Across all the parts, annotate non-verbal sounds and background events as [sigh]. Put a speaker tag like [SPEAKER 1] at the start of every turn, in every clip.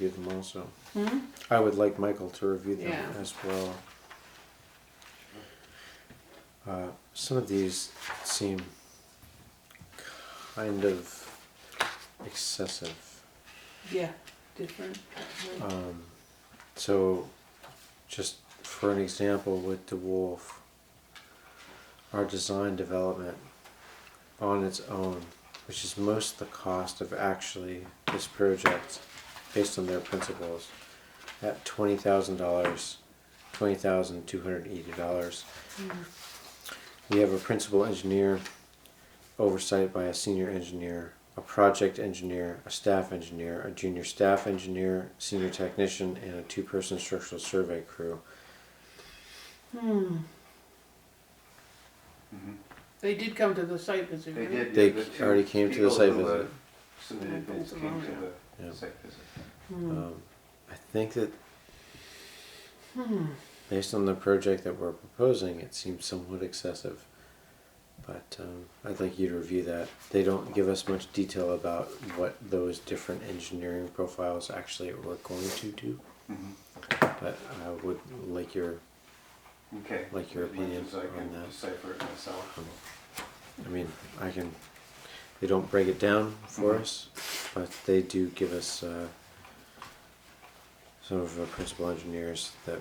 [SPEAKER 1] review them also.
[SPEAKER 2] Hmm?
[SPEAKER 1] I would like Michael to review them
[SPEAKER 2] Yeah.
[SPEAKER 1] as well. Uh, some of these seem kind of excessive.
[SPEAKER 2] Yeah, different.
[SPEAKER 3] Uh,
[SPEAKER 1] Um, so, just for an example, with DeWolf, our design development on its own, which is most the cost of actually this project based on their principles, at twenty thousand dollars, twenty thousand two hundred eighty dollars. We have a principal engineer, oversight by a senior engineer, a project engineer, a staff engineer, a junior staff engineer, senior technician, and a two-person structural survey crew.
[SPEAKER 2] Hmm. They did come to the site visit,
[SPEAKER 3] Mm-hmm. They
[SPEAKER 2] right?
[SPEAKER 3] did.
[SPEAKER 1] They
[SPEAKER 3] yeah, the two
[SPEAKER 1] already came to the
[SPEAKER 3] people
[SPEAKER 1] site
[SPEAKER 3] who, uh,
[SPEAKER 1] visit.
[SPEAKER 3] Submitted bids came to
[SPEAKER 1] Yeah.
[SPEAKER 3] the site visit.
[SPEAKER 1] Um, I think that hmm, based on the project that we're proposing, it seems somewhat excessive. But um, I'd like you to review that. They don't give us much detail about what those different engineering profiles actually were going to do.
[SPEAKER 3] Mm-hmm.
[SPEAKER 1] But I would like your,
[SPEAKER 3] Okay.
[SPEAKER 1] Like your
[SPEAKER 3] As much
[SPEAKER 1] opinion
[SPEAKER 3] as I
[SPEAKER 1] on
[SPEAKER 3] can
[SPEAKER 1] that.
[SPEAKER 3] decipher it myself.
[SPEAKER 1] um, I mean, I can, they don't break it down for
[SPEAKER 3] Mhm.
[SPEAKER 1] us, but they do give us uh, some of our principal engineers that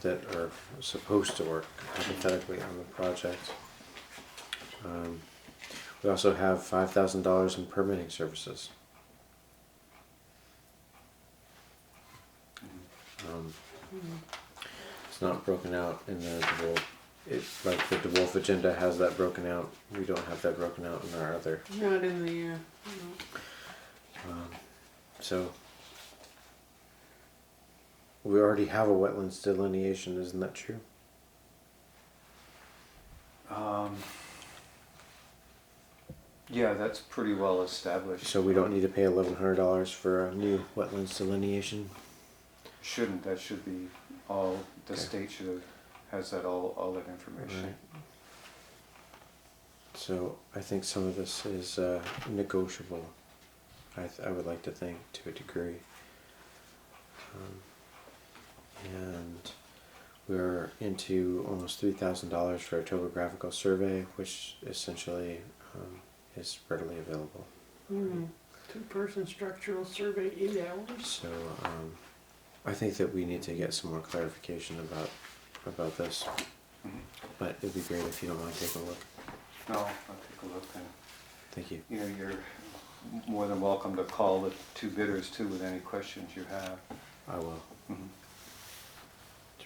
[SPEAKER 1] that are supposed to work hypothetically on the project. Um, we also have five thousand dollars in permitting services. Um, it's not broken out in the DeWolf. It, like the DeWolf agenda has that broken out. We don't have that broken out in our other.
[SPEAKER 2] Not in the, uh,
[SPEAKER 1] Um, so we already have a wetlands delineation, isn't that true?
[SPEAKER 3] Um, Yeah, that's pretty well established.
[SPEAKER 1] So we don't need to pay eleven hundred dollars for a new wetlands delineation.
[SPEAKER 3] Shouldn't, that should be all, the
[SPEAKER 1] Okay.
[SPEAKER 3] state should have, has that all, all that information.
[SPEAKER 1] So I think some of this is uh, negotiable. I, th- I would like to think to a degree. Um, and we're into almost three thousand dollars for a topographical survey, which essentially um, is readily available.
[SPEAKER 2] hmm, two-person structural survey, eight hours.
[SPEAKER 1] So um, I think that we need to get some more clarification about about this.
[SPEAKER 3] Mhm.
[SPEAKER 1] But it'd be great if you don't mind taking a look.
[SPEAKER 3] No, I'll take a look and,
[SPEAKER 1] Thank you.
[SPEAKER 3] you know, you're more than welcome to call the two bidders too with any questions you have.
[SPEAKER 1] I will.
[SPEAKER 3] Mhm.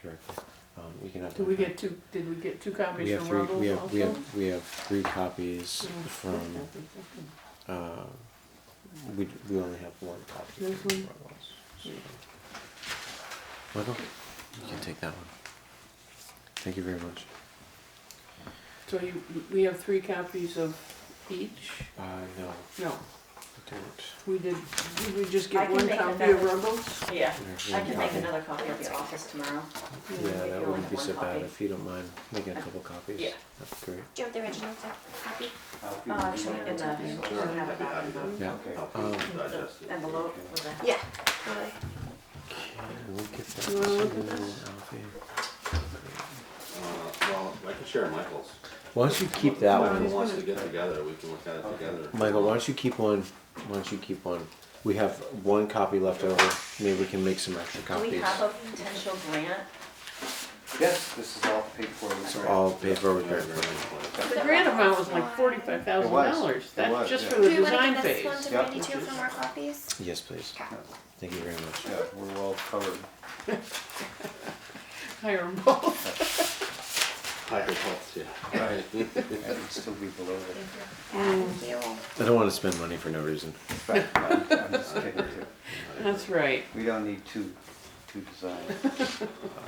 [SPEAKER 1] Directly. Um, you can have.
[SPEAKER 2] Did we
[SPEAKER 1] that.
[SPEAKER 2] get two, did we get two
[SPEAKER 1] We
[SPEAKER 2] copies
[SPEAKER 1] have
[SPEAKER 2] from
[SPEAKER 1] three. We
[SPEAKER 2] Ruggles
[SPEAKER 1] have we
[SPEAKER 2] also?
[SPEAKER 1] have we have three copies
[SPEAKER 2] Yeah.
[SPEAKER 1] from. Uh, we we only have one copy.
[SPEAKER 2] There's
[SPEAKER 1] from
[SPEAKER 2] one.
[SPEAKER 1] Ruggles, so. Michael, you can take that one. Thank you very much.
[SPEAKER 2] So you, we have three copies of each?
[SPEAKER 1] Uh, no,
[SPEAKER 2] No,
[SPEAKER 1] I don't.
[SPEAKER 2] we did, did we just
[SPEAKER 4] I
[SPEAKER 2] get
[SPEAKER 4] can
[SPEAKER 2] one
[SPEAKER 4] make a
[SPEAKER 2] copy of
[SPEAKER 4] better-
[SPEAKER 2] Ruggles?
[SPEAKER 4] Yeah,
[SPEAKER 1] There's
[SPEAKER 4] I
[SPEAKER 1] one
[SPEAKER 4] can make
[SPEAKER 1] copy.
[SPEAKER 4] another copy at the office tomorrow.
[SPEAKER 1] Yeah,
[SPEAKER 4] if
[SPEAKER 1] that
[SPEAKER 4] you
[SPEAKER 1] wouldn't
[SPEAKER 4] only
[SPEAKER 1] be
[SPEAKER 4] have
[SPEAKER 1] so
[SPEAKER 4] one
[SPEAKER 1] bad
[SPEAKER 4] copy.
[SPEAKER 1] if you don't mind making a couple copies.
[SPEAKER 4] Yeah.
[SPEAKER 1] That'd be great.
[SPEAKER 5] Do you want the original copy?
[SPEAKER 3] I'll be-
[SPEAKER 4] Uh, actually, in the, we don't have it back in the
[SPEAKER 1] Yeah.
[SPEAKER 3] Okay.
[SPEAKER 1] Um,
[SPEAKER 4] envelope with the.
[SPEAKER 5] Yeah. Totally.
[SPEAKER 1] we'll get that.
[SPEAKER 2] You wanna look
[SPEAKER 1] to
[SPEAKER 2] at this?
[SPEAKER 1] Alfie.
[SPEAKER 6] Uh, Well, I can share Michael's.
[SPEAKER 1] Why don't you keep that
[SPEAKER 2] Well,
[SPEAKER 1] one?
[SPEAKER 2] he's
[SPEAKER 6] Michael wants to
[SPEAKER 2] gonna-
[SPEAKER 6] get together, we can look at it together.
[SPEAKER 1] Michael, why don't you keep one? Why don't you keep one? We have one copy left over. Maybe we can make some extra
[SPEAKER 4] Do we
[SPEAKER 1] copies.
[SPEAKER 4] have a potential grant?
[SPEAKER 3] Yes, this is all paid for. with
[SPEAKER 1] So
[SPEAKER 3] grant.
[SPEAKER 1] all paid for with
[SPEAKER 6] Yeah,
[SPEAKER 1] grant
[SPEAKER 6] very
[SPEAKER 1] money.
[SPEAKER 6] much.
[SPEAKER 2] The grant amount was like forty-five thousand
[SPEAKER 3] It
[SPEAKER 2] dollars,
[SPEAKER 3] was,
[SPEAKER 2] that's just
[SPEAKER 3] yeah.
[SPEAKER 2] for the
[SPEAKER 5] Do we want to
[SPEAKER 2] design
[SPEAKER 5] give this
[SPEAKER 2] phase.
[SPEAKER 5] one to
[SPEAKER 3] Yep.
[SPEAKER 5] Brandy too for more copies?
[SPEAKER 1] Yes, please.
[SPEAKER 5] Okay.
[SPEAKER 1] Thank you very much.
[SPEAKER 3] Yeah, we're well covered.
[SPEAKER 2] Hire 'em both.
[SPEAKER 6] Higher health, yeah.
[SPEAKER 3] [laughs] Right. I could still be below
[SPEAKER 5] Thank
[SPEAKER 3] it.
[SPEAKER 5] you.
[SPEAKER 2] Mm,
[SPEAKER 5] Thank you.
[SPEAKER 1] I don't want to spend money for no reason.
[SPEAKER 3] But I'm I'm just kidding too.
[SPEAKER 2] That's right.
[SPEAKER 3] We don't need two, two designs.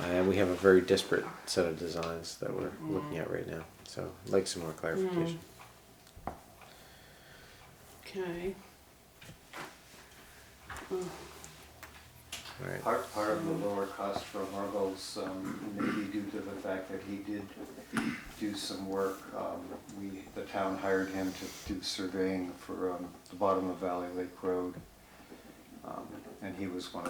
[SPEAKER 1] And we have a very disparate set of designs that we're looking at right now. So I'd like some more clarification.
[SPEAKER 2] Okay.
[SPEAKER 4] Hmm.
[SPEAKER 1] All right.
[SPEAKER 3] Part, part of the lower cost for Margot's, um, maybe due to the fact that he did do some work. Um, we, the town hired him to do surveying for, um, the bottom of Valley Lake Road. Um, and he was one of